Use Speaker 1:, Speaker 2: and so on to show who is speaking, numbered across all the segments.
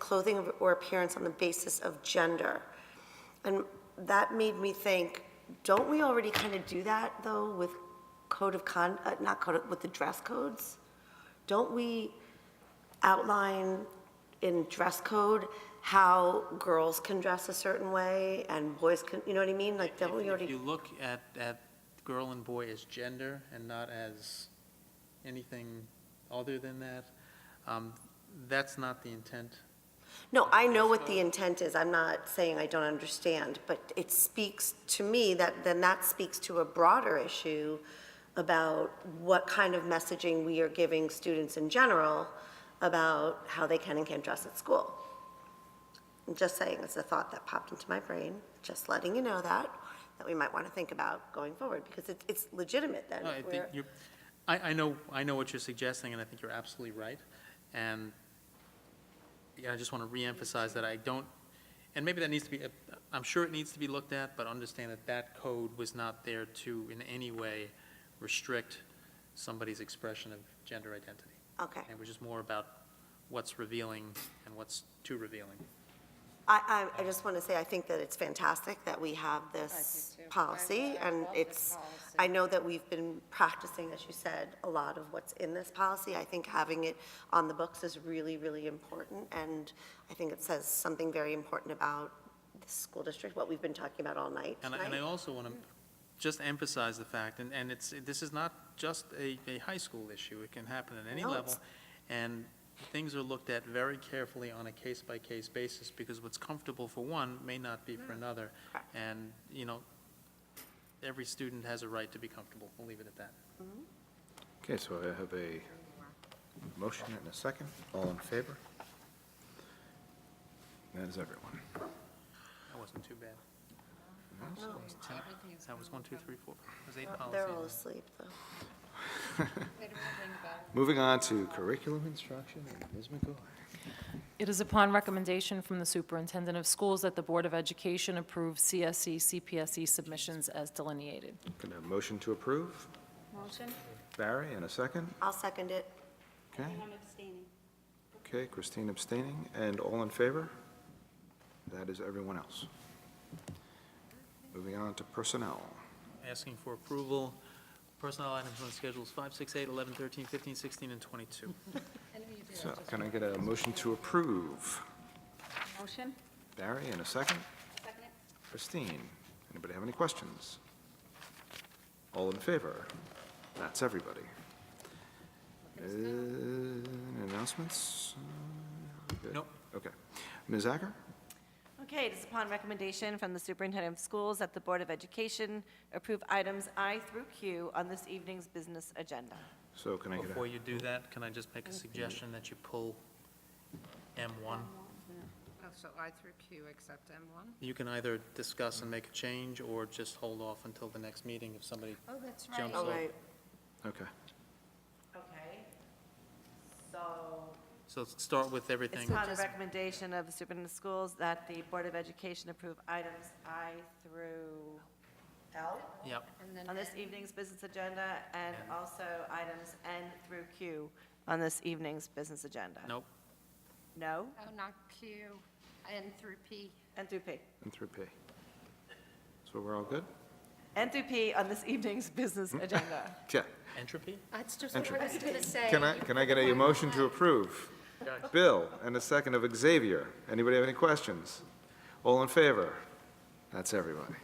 Speaker 1: clothing or appearance on the basis of gender. And that made me think, don't we already kind of do that, though, with code of con, uh, not code, of- with the dress codes? Don't we outline in dress code how girls can dress a certain way and boys can, you know what I mean? Like, E don't we
Speaker 2: If you
Speaker 1: already,
Speaker 2: look at, at girl and boy as gender and not as anything other than that, um, that's not the intent.
Speaker 1: no, I know what the intent is, I'm not saying I don't understand, but it speaks to me that, then that speaks to a broader issue about what kind of messaging we are giving students in general about how they can and can't dress at school. I'm just saying, it's a thought that popped into my brain, just letting you know that, that we might want to think about going forward, because it's, it's legitimate then.
Speaker 2: No, I
Speaker 1: if
Speaker 2: think
Speaker 1: we're-
Speaker 2: you're, I, I know, I know what you're suggesting, and I think you're absolutely right. And, yeah, I just want to reemphasize that I don't, and maybe that needs to be, uh, I'm sure it needs to be looked at, but understand that that code was not there to in any way restrict somebody's expression of gender identity.
Speaker 1: Okay,
Speaker 2: It was just more about what's revealing and what's too revealing.
Speaker 1: I, I, I just want to say, I think that it's fantastic that we have this
Speaker 3: I do too. I
Speaker 1: policy,
Speaker 3: love- I
Speaker 1: and
Speaker 3: love this
Speaker 1: it's,
Speaker 3: policy.
Speaker 1: I know that we've been practicing, as you said, a lot of what's in this policy. I think having it on the books is really, really important, and I think it says something very important about the school district, what we've been talking about all night
Speaker 2: And I, and I
Speaker 1: tonight.
Speaker 2: also want to just emphasize the fact, and, and it's, this is not just a, a high school issue, it can happen at any
Speaker 1: No,
Speaker 2: level.
Speaker 1: it's-
Speaker 2: And things are looked at very carefully on a case-by-case basis, because what's comfortable for one may not be for another.
Speaker 1: Correct.
Speaker 2: And, you know, every student has a right to be comfortable, we'll leave it at that.
Speaker 4: Okay, so I have a motion and a second. All in favor? That is everyone.
Speaker 2: That wasn't too bad.
Speaker 1: No,
Speaker 2: That was one, two, three, four, it was eight
Speaker 1: They're all
Speaker 2: policies.
Speaker 1: asleep, though.
Speaker 4: Moving on to curriculum instruction, and Ms. McGuire.
Speaker 5: It is upon recommendation from the Superintendent of Schools that the Board of Education approve E, CSE, CPSE submissions as delineated.
Speaker 4: Can I have a motion to approve?
Speaker 3: Motion?
Speaker 4: Barry, and a second?
Speaker 1: I'll second it.
Speaker 4: Okay,
Speaker 3: I'm abstaining.
Speaker 4: okay, Christine abstaining, and all in favor? That is everyone else. Moving on to personnel.
Speaker 2: Asking for approval, personnel items on schedules five, six, eight, 11, 13, 15, 16, and 22.
Speaker 4: So can I get a motion to approve?
Speaker 3: Motion?
Speaker 4: Barry, and a second?
Speaker 3: Second it?
Speaker 4: Christine, anybody have any questions? All in favor? That's everybody. Uh, Announcements? Uh, good.
Speaker 2: Nope.
Speaker 4: Okay. Ms. Acker?
Speaker 6: Okay, it is upon recommendation from the superintendent of schools that the Board of Education approve items I through Q on this evening's business agenda.
Speaker 4: So can I get
Speaker 2: Before
Speaker 4: a,
Speaker 2: you do that, can I just make a suggestion that you pull M1?
Speaker 3: Oh, so I through Q except M1?
Speaker 2: You can either discuss and make a change, or just hold off until the next meeting if somebody
Speaker 3: Oh, that's
Speaker 2: jumps
Speaker 1: All
Speaker 2: over.
Speaker 1: right,
Speaker 4: okay,
Speaker 6: Okay, so.
Speaker 2: So let's start with
Speaker 6: It's
Speaker 2: everything.
Speaker 6: upon the recommendation of the superintendent of schools that the Board of Education approve items I through L
Speaker 2: Yep,
Speaker 6: on this evening's business agenda and
Speaker 2: And-
Speaker 6: also items N through Q on this evening's business agenda.
Speaker 2: nope,
Speaker 6: No?
Speaker 3: Oh, not Q, N through P.
Speaker 6: N through P.
Speaker 4: and through P. So we're all good?
Speaker 6: N through P on this evening's business agenda.
Speaker 4: Yeah.
Speaker 2: entropy?
Speaker 3: That's just
Speaker 4: what I
Speaker 3: was going to say.
Speaker 4: Can I, can I get a motion to approve? Bill, and a second of Xavier. Anybody have any questions? All in favor? That's everybody.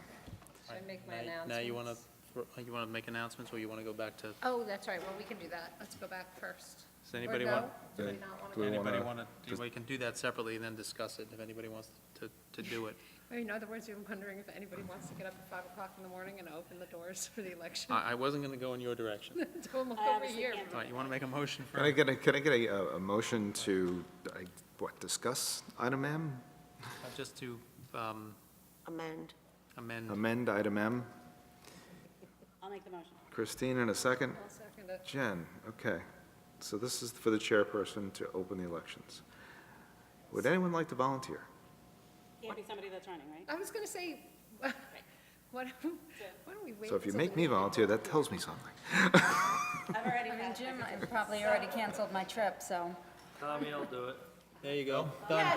Speaker 3: Should I make my
Speaker 2: Now-
Speaker 3: announcements?
Speaker 2: Now, you want to, you want to make announcements, or you want to go back to,
Speaker 3: Oh, that's right, well, we can do that. Let's go back first.
Speaker 2: does anybody
Speaker 3: no?
Speaker 2: want?
Speaker 3: Do we not want
Speaker 4: Do we
Speaker 3: to?
Speaker 4: wanna-
Speaker 2: Anybody want to,
Speaker 4: just-
Speaker 2: we can do that separately and then discuss it, if anybody wants to, to do it.
Speaker 3: Or in other words, you're wondering if anybody wants to get up at 5 o'clock in the morning and open the doors for the election.
Speaker 2: I, I wasn't going to go in your direction.
Speaker 3: It's almost over here.
Speaker 2: All right, you want to make a motion
Speaker 4: Can I
Speaker 2: for,
Speaker 4: get a, can I get a, uh, a motion to, I- what, discuss item M?
Speaker 2: just to um,
Speaker 1: amend.
Speaker 2: amend?
Speaker 4: Amend item M.
Speaker 7: I'll make the motion.
Speaker 4: Christine in a second.
Speaker 3: I'll second it.
Speaker 4: Jen, okay. So this is for the chairperson to open the elections. Would anyone like to volunteer?
Speaker 7: Can't be somebody that's running, right?
Speaker 3: I was going to say, why don't why don't we wait?
Speaker 4: So if you
Speaker 3: until
Speaker 4: make
Speaker 3: the
Speaker 4: me
Speaker 3: meeting?
Speaker 4: volunteer, that tells me something.
Speaker 7: I've already. I mean, Jim, I probably already canceled my trip, so.
Speaker 2: Tommy, I'll do it. There you go. Done.